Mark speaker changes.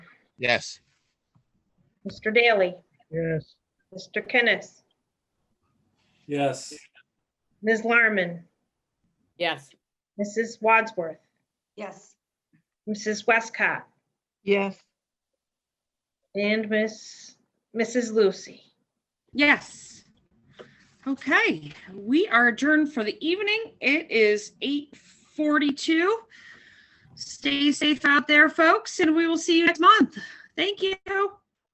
Speaker 1: Yes.
Speaker 2: Mr. Daly,
Speaker 3: Yes.
Speaker 2: Mr. Kenneth,
Speaker 4: Yes.
Speaker 2: Ms. Larman,
Speaker 5: Yes.
Speaker 2: Mrs. Wadsworth,
Speaker 6: Yes.
Speaker 2: Mrs. Westcott,
Speaker 7: yes.
Speaker 2: and Miss, Mrs. Lucy.
Speaker 8: Yes. Okay, we are adjourned for the evening. It is 8:42. Stay safe out there, folks, and we will see you next month. Thank you.